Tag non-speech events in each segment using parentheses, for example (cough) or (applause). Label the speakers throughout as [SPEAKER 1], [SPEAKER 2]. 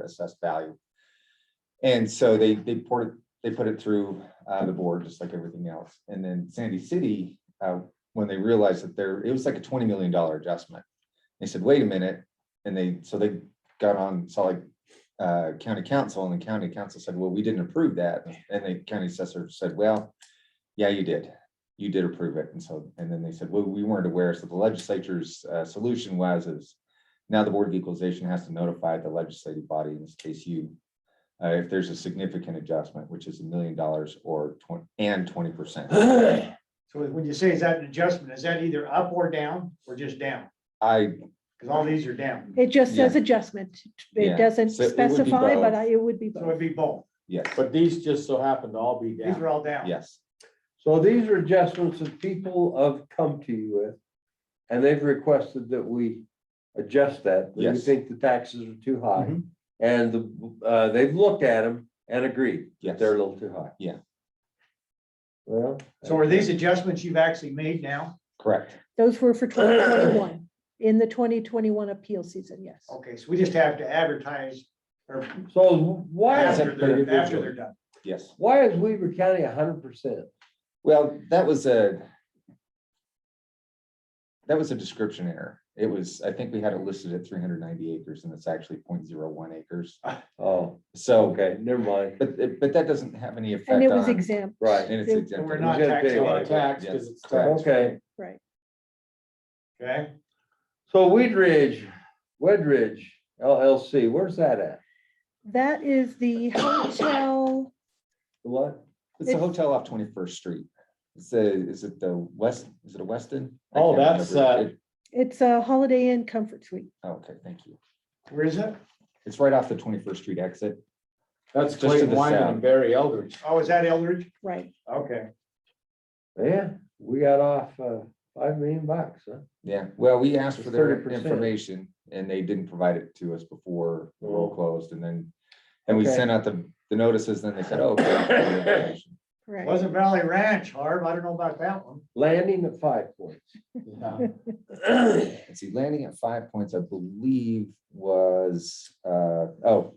[SPEAKER 1] assessed value. And so they, they poured, they put it through uh, the board, just like everything else. And then Sandy City, uh, when they realized that there, it was like a twenty million dollar adjustment. They said, wait a minute, and they, so they got on Salt Lake uh, County Council, and the county council said, well, we didn't approve that. And the county assessor said, well, yeah, you did. You did approve it. And so, and then they said, well, we weren't aware. So the legislature's uh, solution was is now the Board of Equalization has to notify the legislative body, in this case you, uh, if there's a significant adjustment, which is a million dollars or twenty, and twenty percent.
[SPEAKER 2] So when you say is that an adjustment, is that either up or down or just down?
[SPEAKER 1] I,
[SPEAKER 2] Because all these are down.
[SPEAKER 3] It just says
[SPEAKER 1] Yeah.
[SPEAKER 3] adjustment.
[SPEAKER 1] Yeah.
[SPEAKER 3] It doesn't
[SPEAKER 1] So it would be
[SPEAKER 3] specify, but
[SPEAKER 1] both.
[SPEAKER 3] I- it would be
[SPEAKER 2] So it'd
[SPEAKER 3] both.
[SPEAKER 2] be both.
[SPEAKER 1] yes,
[SPEAKER 4] But these just so happen to all be
[SPEAKER 2] These
[SPEAKER 4] down.
[SPEAKER 2] are all down.
[SPEAKER 1] yes,
[SPEAKER 5] So these are adjustments that people have come to you with, and they've requested that we adjust that. They
[SPEAKER 1] Yes.
[SPEAKER 5] think the taxes are too high, and the, uh, they've looked at them and agreed
[SPEAKER 1] yes.
[SPEAKER 5] that they're a little too high.
[SPEAKER 1] Yeah.
[SPEAKER 5] Well.
[SPEAKER 2] So are these adjustments you've actually made now?
[SPEAKER 1] Correct.
[SPEAKER 3] Those were for twenty
[SPEAKER 1] (coughs)
[SPEAKER 3] twenty-one, in the twenty twenty-one appeal season, yes.
[SPEAKER 2] Okay, so we just have to advertise or
[SPEAKER 5] So why, is
[SPEAKER 2] after
[SPEAKER 5] it
[SPEAKER 2] they're, after they're
[SPEAKER 5] that-
[SPEAKER 2] done.
[SPEAKER 1] Yes.
[SPEAKER 5] why is Weaver County hundred percent?
[SPEAKER 1] Well, that was a that was a description error. It was, I think we had it listed at three hundred ninety acres and it's actually 0.01 acres.
[SPEAKER 5] Oh,
[SPEAKER 1] So,
[SPEAKER 5] okay, never mind.
[SPEAKER 1] but, it- but that doesn't have any effect
[SPEAKER 3] And it was
[SPEAKER 1] on-
[SPEAKER 3] exempt.
[SPEAKER 5] Right,
[SPEAKER 1] And it's
[SPEAKER 3] They-
[SPEAKER 1] exempt.
[SPEAKER 2] And we're
[SPEAKER 1] It
[SPEAKER 2] not
[SPEAKER 5] We're gonna
[SPEAKER 2] taxing
[SPEAKER 5] pay
[SPEAKER 2] on
[SPEAKER 5] it.
[SPEAKER 2] it,
[SPEAKER 4] Tax,
[SPEAKER 1] Yes,
[SPEAKER 4] because it's
[SPEAKER 1] correct.
[SPEAKER 4] tax.
[SPEAKER 5] okay.
[SPEAKER 3] Right.
[SPEAKER 2] okay?
[SPEAKER 5] So Weed Ridge, Wedridge LLC, where's that at?
[SPEAKER 3] That is the hotel,
[SPEAKER 5] What?
[SPEAKER 1] It's a hotel off Twenty-first Street. It's a, is it the West, is it a Weston? I
[SPEAKER 4] Oh,
[SPEAKER 1] can't
[SPEAKER 4] that's,
[SPEAKER 1] remember.
[SPEAKER 4] uh,
[SPEAKER 1] It- oh,
[SPEAKER 3] it's a Holiday Inn Comfort Suite.
[SPEAKER 1] Okay, thank you.
[SPEAKER 2] Where is it?
[SPEAKER 1] It's right off the Twenty-first Street exit.
[SPEAKER 4] That's
[SPEAKER 1] Just to
[SPEAKER 4] Clayton
[SPEAKER 1] the
[SPEAKER 4] Wyman
[SPEAKER 1] south.
[SPEAKER 4] and Barry Eldridge.
[SPEAKER 2] Oh, is that Eldridge?
[SPEAKER 3] Right.
[SPEAKER 2] Okay.
[SPEAKER 5] Yeah, we got off uh five million bucks, huh?
[SPEAKER 1] Yeah, well, we asked
[SPEAKER 5] It's
[SPEAKER 1] for their
[SPEAKER 5] 30%.
[SPEAKER 1] information and they didn't provide it to us before the roll
[SPEAKER 4] Mm.
[SPEAKER 5] Oh.
[SPEAKER 1] closed and then, and we
[SPEAKER 5] Okay.
[SPEAKER 1] sent out the, the notices, then they said, oh. okay, we have your information."
[SPEAKER 3] Right.
[SPEAKER 2] Pleasant Valley Ranch, Harv, I don't know about that one.
[SPEAKER 5] Landing at five points.
[SPEAKER 4] Yeah.
[SPEAKER 1] Let's see, landing at five points, I believe was, uh, oh.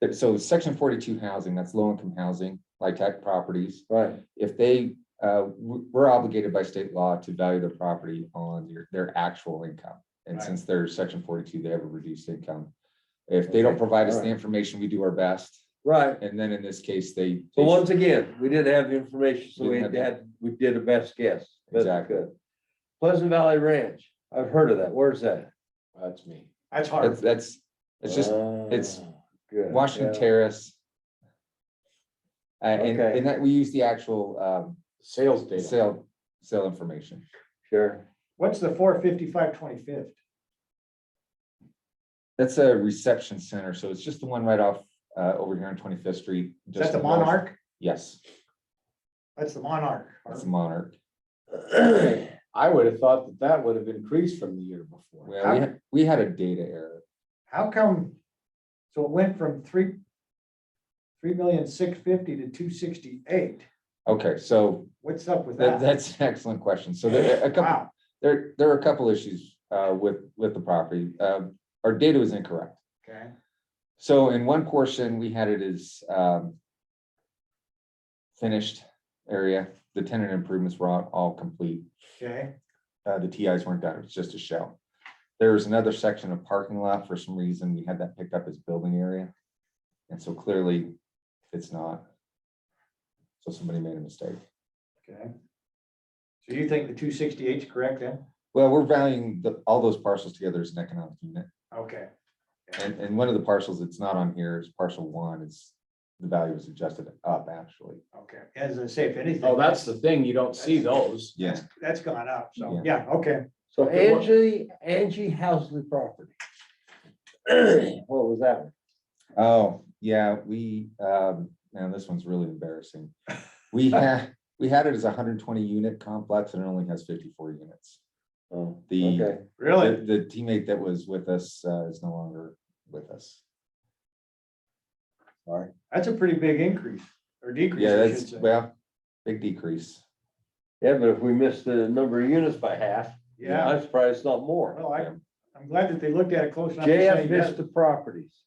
[SPEAKER 1] that- So section forty-two housing, that's low income housing, like tech properties.
[SPEAKER 5] Right,
[SPEAKER 1] If they, uh, w- we're obligated by state law to value their property on their, their actual income. And
[SPEAKER 2] Right.
[SPEAKER 1] since they're section forty-two, they have a reduced income. If they don't
[SPEAKER 5] Okay,
[SPEAKER 1] provide us the
[SPEAKER 5] alright.
[SPEAKER 1] information, we do our best.
[SPEAKER 5] right.
[SPEAKER 1] And then in this case, they.
[SPEAKER 5] So once again, we didn't have the information, so we
[SPEAKER 1] Didn't have
[SPEAKER 5] had,
[SPEAKER 1] the-
[SPEAKER 5] had- we did a best guess. Best we
[SPEAKER 1] Exactly.
[SPEAKER 5] could. Pleasant Valley Ranch, I've heard of that. Where's that?
[SPEAKER 4] That's me.
[SPEAKER 1] That's,
[SPEAKER 2] That's Harv.
[SPEAKER 1] that's, it's just it's
[SPEAKER 5] Ah, good,
[SPEAKER 1] Washington
[SPEAKER 5] yeah.
[SPEAKER 1] Terrace. Uh, and,
[SPEAKER 5] Okay.
[SPEAKER 1] and that, we use the actual, um,
[SPEAKER 4] Sales data.
[SPEAKER 1] sale, sale information.
[SPEAKER 5] Sure.
[SPEAKER 2] What's the four fifty-five twenty-fifth?
[SPEAKER 1] That's a reception center, so it's just the one right off, uh, over here on Twenty-Fifth Street.
[SPEAKER 2] Is
[SPEAKER 1] just
[SPEAKER 2] that the
[SPEAKER 1] north.
[SPEAKER 2] Monarch?
[SPEAKER 1] Yes,
[SPEAKER 2] That's the Monarch. Harv.
[SPEAKER 1] that's the Monarch.
[SPEAKER 4] I would have thought that that would have increased from the year before.
[SPEAKER 1] Well, we, had- we had a data error.
[SPEAKER 2] How come? So it went from three, three million six fifty to two sixty-eight.
[SPEAKER 1] Okay, so
[SPEAKER 2] What's up with
[SPEAKER 1] that,
[SPEAKER 2] that?
[SPEAKER 1] that's (laughs) an excellent question. So there, a couple,
[SPEAKER 2] Wow,
[SPEAKER 1] there, there are a couple issues, uh, with, with the property. Um our data was incorrect.
[SPEAKER 2] okay.
[SPEAKER 1] So in one portion, we had it as um, finished area. The tenant improvements were all, all complete.
[SPEAKER 2] Okay,
[SPEAKER 1] Uh, The TIs weren't done. It was just a shell. There was another section of parking lot. For some reason, we had that picked up as building area. And so clearly, it's not. So somebody made a mistake.
[SPEAKER 2] okay. So you think the two sixty-eight is correct then?
[SPEAKER 1] Well, we're valuing the, all those parcels together as an economic unit.
[SPEAKER 2] Okay,
[SPEAKER 1] And, and one of the parcels that's not on here is parcel one. It's, the value is adjusted up, actually.
[SPEAKER 2] okay. As I say, if anything.
[SPEAKER 4] Oh, that's the thing. You don't see those.
[SPEAKER 1] Yes.
[SPEAKER 2] That's gone up, so,
[SPEAKER 1] Yeah.
[SPEAKER 2] yeah, okay.
[SPEAKER 5] So
[SPEAKER 4] Okay, what-
[SPEAKER 5] Angie, Angie Housley property. What was that? one?
[SPEAKER 1] Oh, yeah, we, um, man, this one's really embarrassing. We had, we had it as a hundred and twenty unit complex and it only has fifty-four units.
[SPEAKER 5] Oh,
[SPEAKER 1] The-
[SPEAKER 5] okay.
[SPEAKER 2] Really?
[SPEAKER 1] The the teammate that was with us, uh, is no longer with us. Sorry.
[SPEAKER 2] That's a pretty big increase or decrease, eh?
[SPEAKER 1] Yeah,
[SPEAKER 2] I should
[SPEAKER 1] that's,
[SPEAKER 2] say.
[SPEAKER 1] well, big decrease.
[SPEAKER 5] Yeah, but if we missed the number of units by half,
[SPEAKER 2] Yeah,
[SPEAKER 5] I'm surprised it's not more.
[SPEAKER 2] well, I, I'm glad that they looked at it close enough. to say
[SPEAKER 5] JF
[SPEAKER 2] yes.
[SPEAKER 5] Vista Properties.